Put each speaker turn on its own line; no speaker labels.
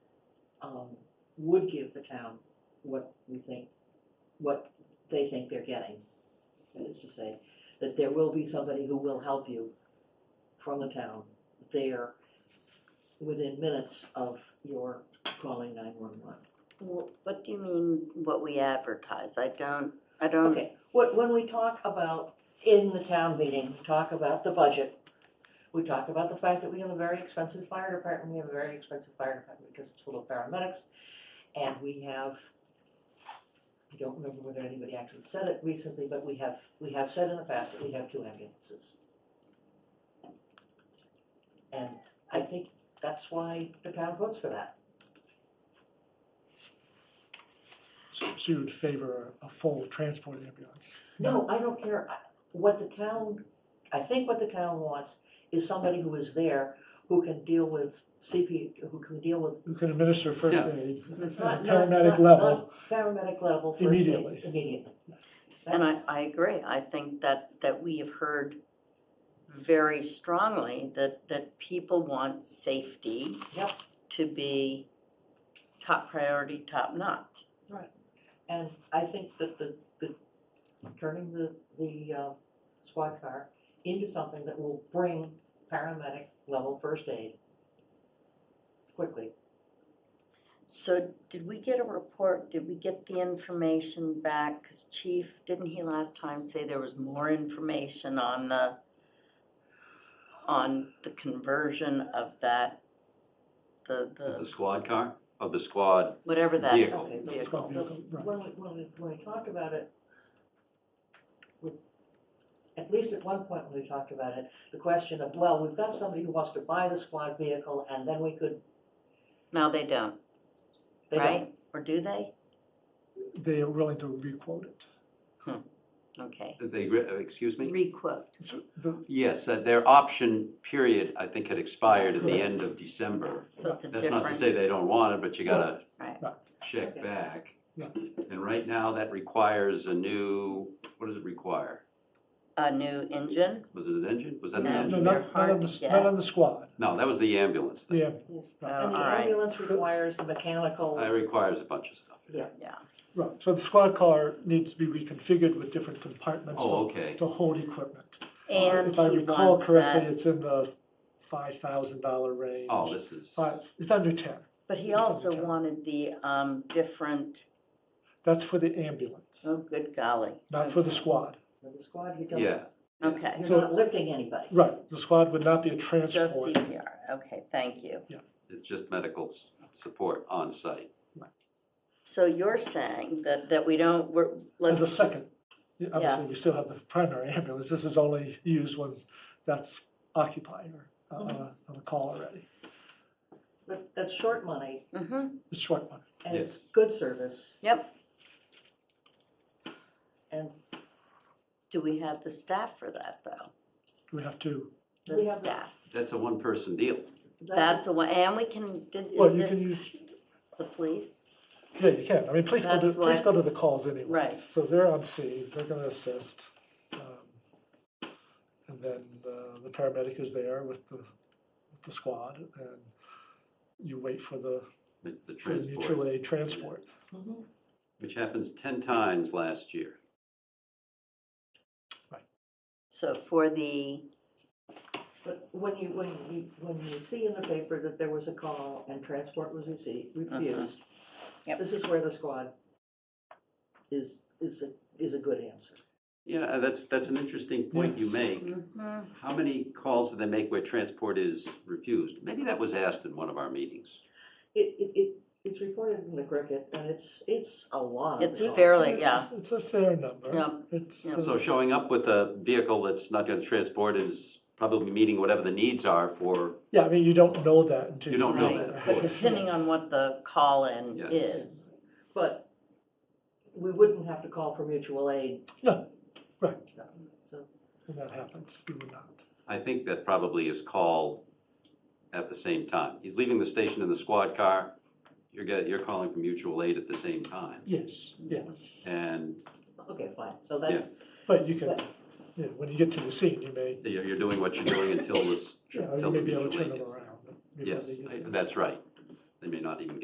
um, would give the town what we think, what they think they're getting. That is to say, that there will be somebody who will help you from the town there within minutes of your calling nine-one-one.
Wh- What do you mean, what we advertise? I don't, I don't,
Okay, what, when we talk about, in the town meeting, talk about the budget, we talk about the fact that we have a very expensive fire department, we have a very expensive fire department because it's full of paramedics, and we have, I don't remember whether anybody actually said it recently, but we have, we have said in the past that we have two ambulances. And I think that's why the town votes for that.
So so you would favor a full transport ambulance?
No, I don't care. I- What the town, I think what the town wants is somebody who is there who can deal with CP, who can deal with.
Who can administer first
Yeah.
aid
not-
at a
not- not-
paramedic level?
not Paramedic level. first aid,
Immediately.
Immediately.
and I,
That's-
I agree. I think that, that we have heard very strongly that, that people want safety
Yep.
to be top priority, top notch.
And I think that the, the, turning the, the, uh, squad car into something that will bring paramedic level first aid quickly.
So did we get a report? Did we get the information back? Because Chief, didn't he last time say there was more information on the, on the conversion of that, the,
Of the
the,
squad car, of the squad,
whatever that is?
Vehicle.
Okay.
Squad vehicle, right.
When we, when we, when we talked about it, we- at least at one point when we talked about it, the question of, well, we've got somebody who wants to buy the squad vehicle and then we could,
Now they don't,
they don't.
right? Or do they?
They are willing to requote it.
Okay.
that they, re- uh, excuse me?
Requote.
So the-
Yes, uh, their option period, I think, had expired at the end of December.
So it's a
That's not to
different,
say they don't want it, but you gotta
right.
check
Okay.
back.
Yeah.
And right now, that requires a new, what does it require?
A new engine?
Was it an engine? Was that the
No.
No,
engine?
they're
not, not
hard
on
to
the, s-
get.
not on the squad,
No, that was the ambulance thing.
the ambulance.
Oh,
And
all
the
right,
ambulance requires the
That
mechanical,
requires a bunch of stuff.
Yeah.
yeah.
Right, so the squad car needs to be reconfigured with different compartments
Oh,
to,
okay.
to hold equipment.
And
If I
he
recall
wants
correctly,
that,
it's in the five thousand dollar range.
Oh, this is,
Five, it's under ten,
but he also wanted the, um, different,
that's for the ambulance,
oh, good golly.
not for the squad.
for the squad, you don't,
yeah.
you're
Okay.
So-
not lifting anybody.
Right, the squad would not be a
Just
transport.
CPR, okay, thank you.
It's just medical s- support on site.
So you're saying that, that we don't, we're, let's.
As
just-
a second, Yeah, obviously, we still have the primary ambulance, this is only used when that's occupied or uh, on a-
Mm-hmm.
on a call already.
But that's short money
Mhm,
It's short one.
and it's
Yes.
good service
yep.
and
Do we have the staff for that, though?
we have to,
We
The
have the-
staff,
That's a one-person deal.
that's a, wa- and we can, did-
well,
is
you can
this
use,
the police?
yeah, you can, I mean, police go to,
That's
police
why-
go to the calls anyway.
Right.
So they're on scene, they're gonna assist. um, And then uh, the paramedic is there with the, with the squad, and you wait for the,
The the
for the mutual
transport,
aid transport.
Mhm.
which happens ten times last year.
So for the,
But when you, when you, when you see in the paper that there was a call and transport was received, refused,
Uh-huh. Yep.
this is where the squad is, is, a- is a good answer.
Yeah, that's, that's an interesting point you
Yes.
make.
Mhm.
How many calls do they make where transport is refused? Maybe that was asked in one of our meetings.
It, it, it, it's reported in the cricket, and it's, it's a lot. of
It's
calls.
fairly- Really, yeah.
It's it's a fair number.
Yeah.
It's,
Yeah.
uh,
So showing up with a vehicle that's not gonna transport is probably meeting whatever the needs are for,
yeah, I mean, you don't know that until.
You don't
know
that, of
but
course.
depending on what the call-in
Yes.
is.
But we wouldn't have to call for mutual aid.
No, right.
So,
When that happens, you would not.
I think that probably is call at the same time. He's leaving the station in the squad car, you're get, you're calling for mutual aid at the same time.
Yes, yes.
And
okay, fine, so that's,
But you can,
But-
yeah, when you get to the scene, you may,
you're, you're doing what you're doing until this,
you know,
until
you
the
may be able to
mutual
turn
aid
them
is.
around. before
Yes,
they get
I-
there.
that's right. They may not even